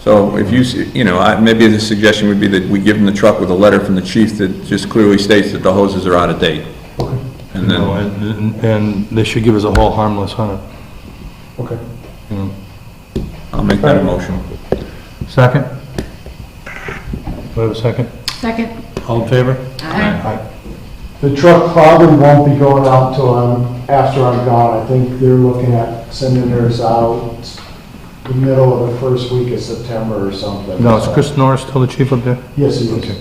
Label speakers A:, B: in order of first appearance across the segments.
A: So if you, s- you know, I- maybe the suggestion would be that we give them the truck with a letter from the chief that just clearly states that the hoses are out of date. And
B: No,
A: then,
B: And and they should give us a whole harmless hundred,
C: Okay.
B: you know.
A: I'll make that a motion.
B: Second? Do I have a second?
D: Second.
B: All in favor?
D: Aye.
C: The truck probably won't be going out until I'm, after I'm gone. I think they're looking at sending theirs out the middle of the first week of September or something.
B: No, is Chris Norris still the chief up there?
C: Yes, he
B: Okay.
C: is.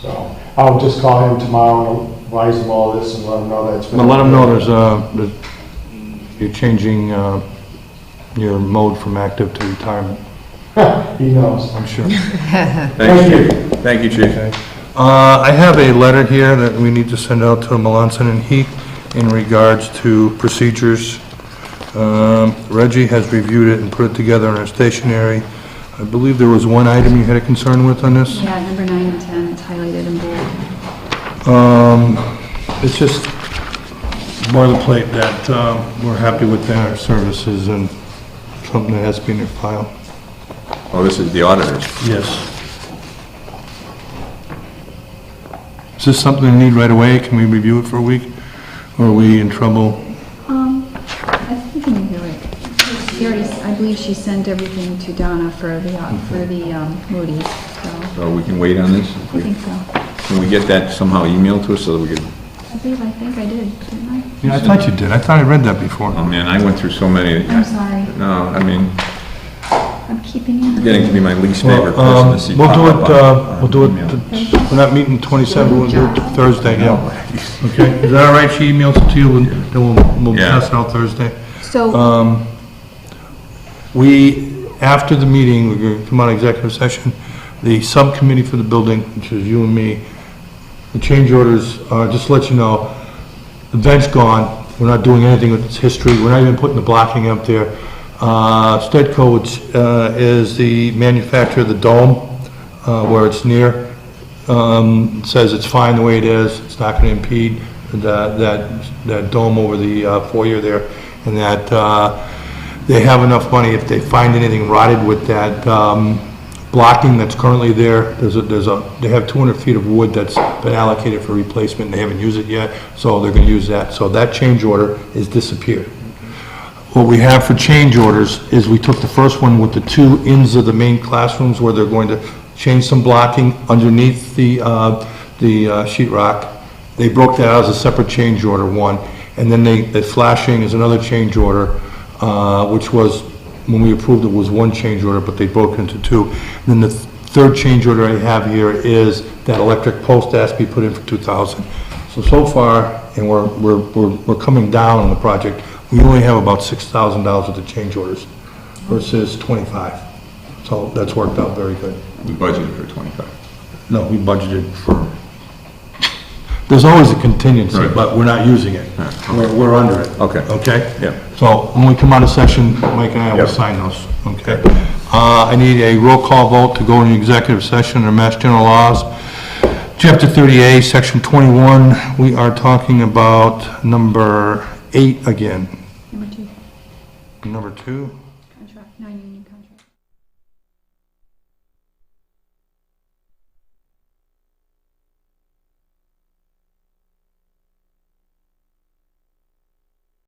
C: So I'll just call him tomorrow and advise him all this and let him know that's been.
B: But let them know there's uh that you're changing uh, your mode from active to retirement,
C: He knows.
B: I'm sure.
A: Thank you,
C: Thank
A: Chief. Thank you, Chief.
B: Uh, I have a letter here that we need to send out to Melanson and Heath in regards to procedures. Um, Reggie has reviewed it and put it together in our stationery. I believe there was one item you had a concern with on this?
D: Yeah, number nine and 10, it's highlighted in bold.
B: Um, it's just boilerplate that, um, we're happy with their services and something that has to be in their file.
A: Oh, this is the auditor.
B: Yes. Is this something we need right away? Can we review it for a week? Or are we in trouble?
D: Um, I think I can do it. She already, I believe she sent everything to Donna for the, uh, for the um, Moody's, so,
A: So we can wait on this?
D: I think so. I
A: Can we get that somehow emailed to us so that we can,
D: believe, I think I did, didn't I?
B: Yeah, I thought you did. I thought I read that before.
A: oh man, I went through so many.
D: I'm sorry,
A: No, I mean,
D: I'm keeping you.
A: getting to be my least favorite
B: Well, um,
A: person to see
B: We'll
A: pop
B: do
A: up
B: it,
A: on-
B: uh,
A: on
B: we'll do
A: email.
B: it, th- we're not meeting 27, we'll do it Thursday, yeah. Okay, is that all right? She emails it to you, and then we'll, we'll
A: Yeah.
B: pass it out Thursday. Uh,
D: So,
B: Um, We, after the meeting, we're going to come out of executive session, the subcommittee for the building, which is you and me, the change orders, uh, just to let you know, the bench gone, we're not doing anything with its history, we're not even putting the blocking up there. Uh, Stetco, which, uh, is the manufacturer of the dome, uh, where it's near, um, says it's fine the way it is, it's not gonna impede that, that, that dome over the uh, foyer there, and that, uh, they have enough money if they find anything rotted with that, um, blocking that's currently there, there's a, there's a, they have two hundred feet of wood that's been allocated for replacement, they haven't used it yet, so they're gonna use that, so that change order is disappeared. What we have for change orders is we took the first one with the two ends of the main classrooms where they're going to change some blocking underneath the, uh, the uh, sheet rock. They broke that out as a separate change order, one. And then they, the flashing is another change order, uh, which was, when we approved it, was one change order, but they broke it into two. And then the th- third change order I have here is that electric post has to be put in for 2,000. So, so far, and we're, we're, we're we're coming down on the project, we only have about $6,000 worth of change orders versus 25. So that's worked out very good.
A: We budgeted for 25.
B: No, we budgeted for, there's always a contingency,
A: Right.
B: but we're not using it. We're, we're under it.
A: Okay.
B: Okay?
A: Yeah.
B: So when we come out of session, Mike and I will
A: Yep.
B: sign those, okay? Uh, I need a roll call vote to go into executive session under Mass General Laws. Chapter 30A, Section 21, we are talking about number eight again.
D: number two,
B: Number two?
D: contract, non-union contract.